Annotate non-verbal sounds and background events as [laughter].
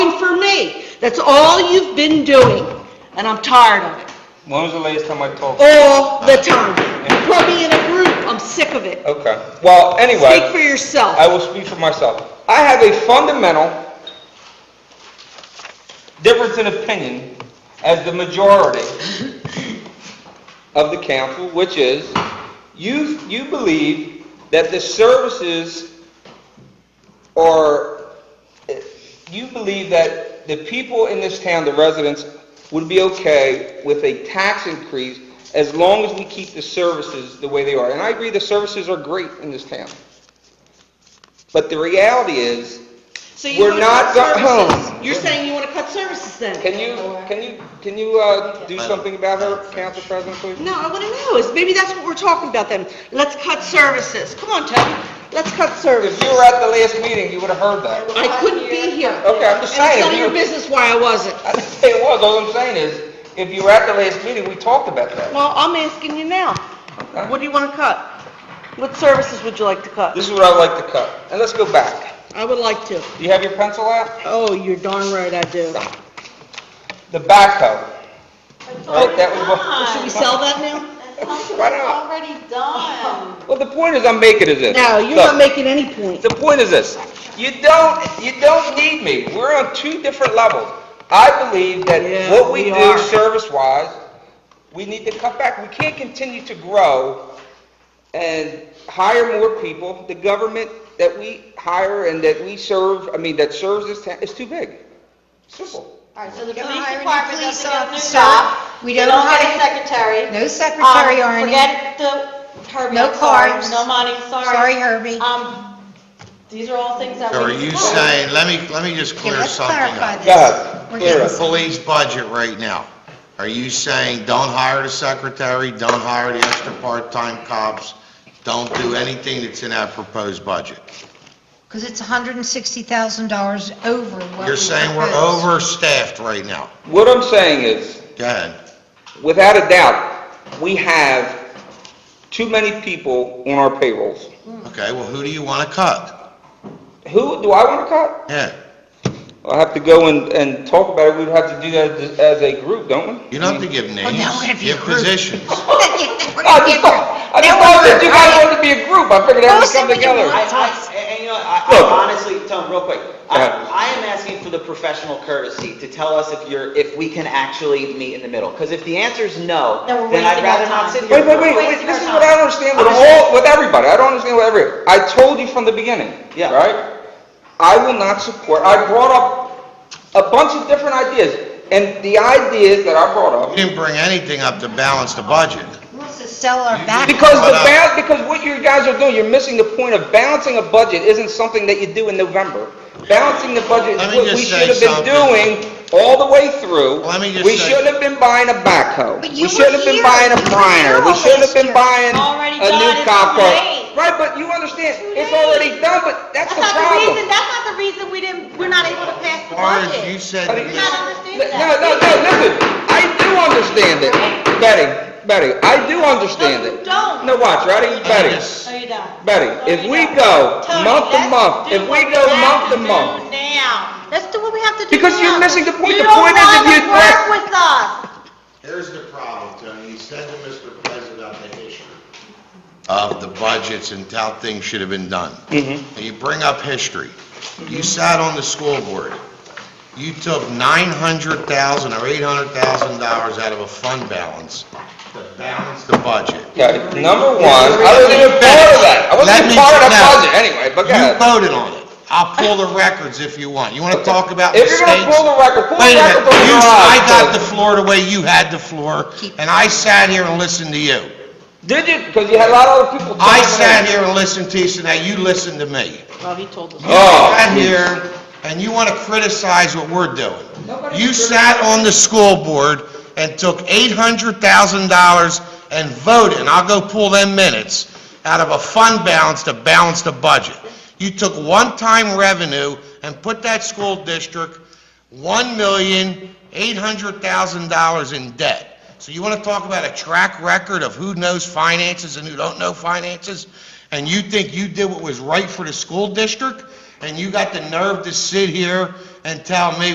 That's all you've been doing, and I'm tired of it, When was the latest time I talked? all the time. You put me in a group, I'm sick of it. Okay, well, anyway. Speak for I yourself. will speak for myself. I have a fundamental difference in opinion as the majority of the council, which is, you, you believe that the services are, you believe that the people in this town, the residents, would be okay with a tax increase as long as we keep the services the way they are. And I agree, the services are great in this town. But the reality is, So you we're wanna not cut go- services. home. You're saying you want to cut services then? can you, can you, can you, uh, do something about her, Council President, please? No, I want to know, is, maybe that's what we're talking about then. Let's cut services. Come on, Tony, let's cut services. If you were at the last meeting, you would've heard that. I couldn't be here. Okay, I'm And just it's none saying, of you, your business why I wasn't. I didn't say it was, all I'm saying is, if you were at the last meeting, we talked about that. Well, I'm asking you now. What do you want to cut? What services would you like to cut? This is what I'd like to cut, and let's go back. I would like to. Do you have your pencil out? Oh, you're darn right I do. The backhoe. Right, that was what. Should we sell that now? [laughs] Why not? Already done. Well, the point is I'm making is this. No, you're Look, not making any point. The point is this, you don't, you don't need me, we're on two different levels. I believe that Yeah, what we we do are. service-wise, we need to cut back, we can't continue to grow and hire more people, the government that we hire and that we serve, I mean, that serves this town, is too big. Simple. All right, so the Can police I hire a new department police doesn't get a new officer? job. We They don't don't get a hire- secretary. No secretary Um, or any- Forget the Herbie, No I'm sorry, cars. no money, sorry. Sorry, Herbie. Um, these are all things that we. So are you discussed. saying, let me, let me just Okay, clear let's something clarify up. this. Go ahead. We're Clear getting it. The police budget right now, are you saying, don't hire the secretary, don't hire the extra part-time cops, don't do anything that's in that proposed budget? Because it's $160,000 over what we You're saying we're proposed. overstaffed right now. What I'm saying is, Go ahead. Without a doubt, we have too many people on our payrolls. Mm. Okay, well, who do you want to cut? Who, do I want to cut? Yeah, I'll have to go and, and talk about it, we'd have to do that as, as a group, don't we? you don't have to give now we're gonna names, be give rude. positions. [laughs] We're I gonna just get- thought, I just now thought we're- that you guys wanted to be a group, I figured that would come Oh, say what you together. want. I, I, and you know, I, Look. I honestly, Tom, real quick, I, Yeah. I am asking for the professional courtesy to tell us if you're, if we can actually meet in the middle. Because if the answer is no, Then we're then I'd wasting our rather not time. sit here. Wait, wait, wait, wait, this is what I don't understand with all, with everybody, I don't understand with everybody. I told you from the beginning, Yeah. right? I will not support, I brought up a bunch of different ideas, and the ideas that I brought up You didn't bring anything up to balance the budget. He Wants to sell our back. Because the Why ba, because what you guys are doing, you're missing the point of balancing a budget isn't something that you do in November. Balancing the budget Let is me what we just should have say been something. doing all the way through. Let me just We say- should have been buying a backhoe. But We you should were have been here. buying a You were primer. here We all should have last been year. buying Already a done. new It's cop too car. late. Right, but you understand, it's late. already done, but that's That's the not the reason, problem. that's not the reason we didn't, we're not able to pass the As far as you budget. said, But You're it- not No, understanding no, that. no, listen, I do understand it. Betty, Betty, I do understand No, you it. don't. No, watch, ready? Betty. No, Oh, you don't. Betty, if No, you we don't. go Tony, month to let's month, do if we what go have month to do month, Now, let's do what we have to do Because you're now. missing the point. You The point is if don't you- wanna work with us. Here's the problem, Tony, you said to Mr. President the history of the budgets and how things should have been done. Mm-hmm. And you bring up history. You sat on the school board. You took nine hundred thousand or eight hundred thousand dollars out of a fund balance to balance the budget. okay, number one, I wasn't even part of that. I wasn't Let even me- part of that no. budget anyway, but go You ahead. voted on it. I'll pull the records if you want. You want to talk about If mistakes? you're gonna pull the record, pull the Wait a record minute, from you, your I got the eyes. floor the way you had the floor, and I sat here and listened to you. Did you, because you had a lot of other people. I talking. sat here and listened to you, so now you listen to me. Well, he told us. Oh. Sat here, and you want to criticize what we're doing. You sat on the school board and took $800,000 and voted, and I'll go pull them minutes, out of a fund balance to balance the budget. You took one-time revenue and put that school district $1,800,000 in debt. So you want to talk about a track record of who knows finances and who don't know finances? And you think you did what was right for the school district? And you got the nerve to sit here and tell me